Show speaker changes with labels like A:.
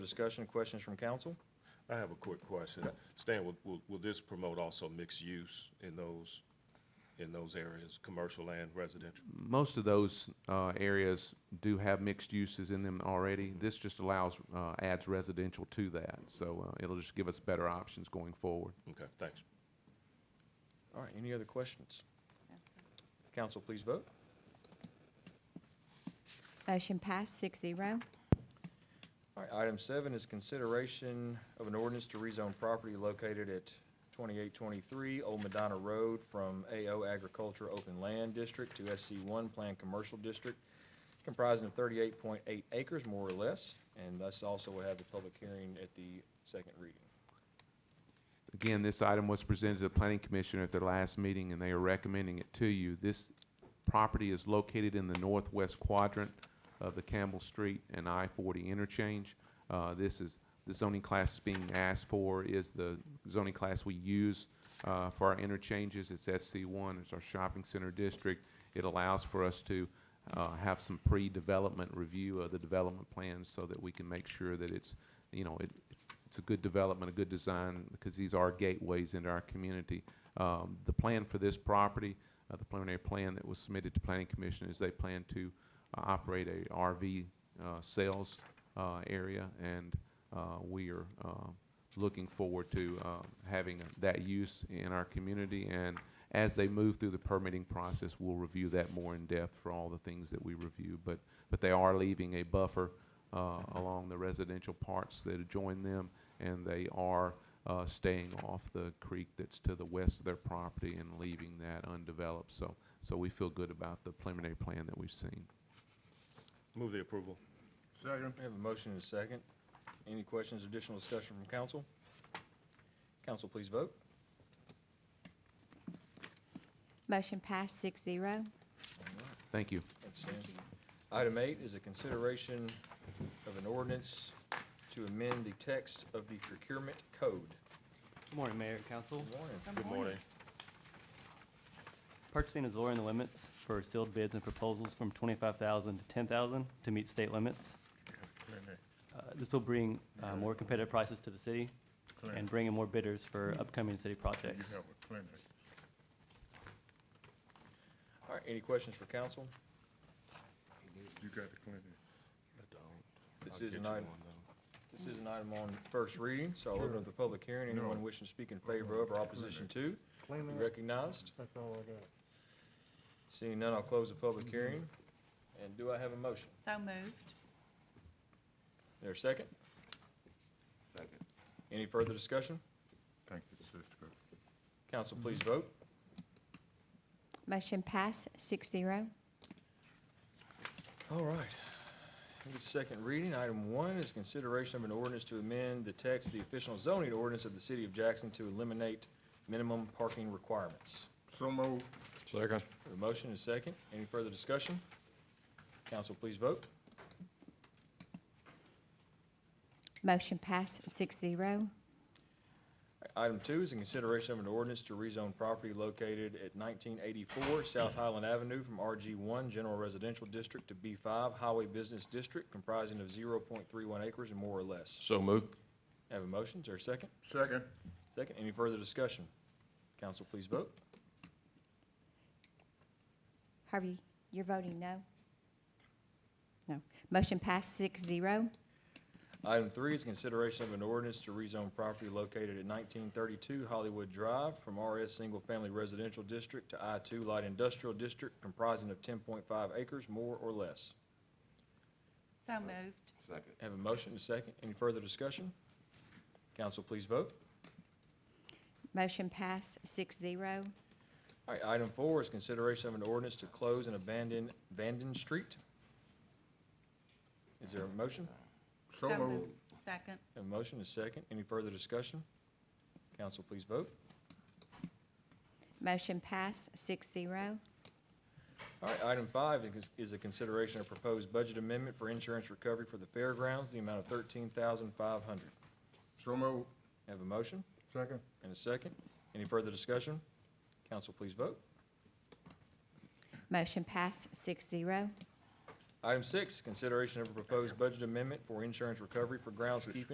A: Discussion, questions from council?
B: I have a quick question. Stan, will- will, will this promote also mixed use in those, in those areas, commercial and residential?
C: Most of those uh, areas do have mixed uses in them already. This just allows, uh, adds residential to that, so uh, it'll just give us better options going forward.
B: Okay, thanks.
A: All right, any other questions? Council, please vote.
D: Motion passed, six zero.
A: All right, item seven is consideration of an ordinance to rezone property located at twenty-eight twenty-three Old Madonna Road from AO Agriculture Open Land District to SC one Planned Commercial District comprising of thirty-eight point eight acres, more or less, and thus also will have the public hearing at the second reading.
C: Again, this item was presented to the planning commission at their last meeting, and they are recommending it to you. This property is located in the northwest quadrant of the Campbell Street and I-40 interchange. Uh, This is, the zoning class being asked for is the zoning class we use uh, for our interchanges. It's SC1, it's our shopping center district. It allows for us to uh, have some pre-development review of the development plans so that we can make sure that it's, you know, it it's a good development, a good design, because these are gateways into our community. Um, the plan for this property, uh, the preliminary plan that was submitted to planning commission is they plan to uh, operate a RV, uh, sales, uh, area, and, uh, we are, uh, looking forward to, uh, having that use in our community, and as they move through the permitting process, we'll review that more in depth for all the things that we review, but, but they are leaving a buffer, uh, along the residential parts that adjoin them, and they are uh, staying off the creek that's to the west of their property and leaving that undeveloped. So, so we feel good about the preliminary plan that we've seen.
B: Move the approval.
E: Second.
A: We have a motion and a second. Any questions, additional discussion from council? Council, please vote.
D: Motion passed, six zero.
C: Thank you.
A: Thanks, Stan. Item eight is a consideration of an ordinance to amend the text of the procurement code.
F: Good morning, Mayor and Council.
B: Good morning.
F: Purchasing is lowering the limits for sealed bids and proposals from twenty-five thousand to ten thousand to meet state limits. Uh, This will bring uh, more competitive prices to the city and bring in more bidders for upcoming city projects.
A: All right, any questions for council?
E: You got the clinic.
A: This
B: I'll
A: is an
B: get you
A: item,
B: one, though.
A: this is an item on first reading, so I'll open up the public hearing. Anyone wishing to speak in favor of or opposition to, be recognized.
E: That's all I got.
A: Seeing none, I'll close the public hearing. And do I have a motion?
G: So moved.
A: There a second?
E: Second.
A: Any further discussion?
E: Thank you, sister.
A: Council, please vote.
D: Motion passed, six zero.
A: All right. Give it second reading. Item one is consideration of an ordinance to amend the text of the official zoning ordinance of the city of Jackson to eliminate minimum parking requirements.
E: So moved.
A: Second. A motion is second. Any further discussion? Council, please vote.
D: Motion passed, six zero.
A: Item two is a consideration of an ordinance to rezone property located at nineteen eighty-four South Highland Avenue from RG one General Residential District to B five Highway Business District comprising of zero point three one acres and more or less. So moved. Have a motion. Is there a second?
E: Second.
A: Second, any further discussion? Council, please vote.
D: Harvey, you're voting no? No. Motion passed, six zero.
A: Item three is consideration of an ordinance to rezone property located at nineteen thirty-two Hollywood Drive from RS Single Family Residential District to I two Light Industrial District comprising of ten point five acres, more or less.
G: So moved.
A: Have a motion and a second. Any further discussion? Council, please vote.
D: Motion passed, six zero.
A: All right, item four is consideration of an ordinance to close and abandon Vanden Street. Is there a motion?
E: So moved.
G: Second.
A: Have a motion and a second. Any further discussion? Council, please vote.
D: Motion passed, six zero.
A: All right, item five is- is a consideration of proposed budget amendment for insurance recovery for the fairgrounds, the amount of thirteen thousand five hundred.
E: So moved.
A: Have a motion
E: Second.
A: and a second. Any further discussion? Council, please vote.
D: Motion passed, six zero.
A: Item six, consideration of a proposed budget amendment for insurance recovery for groundskeeping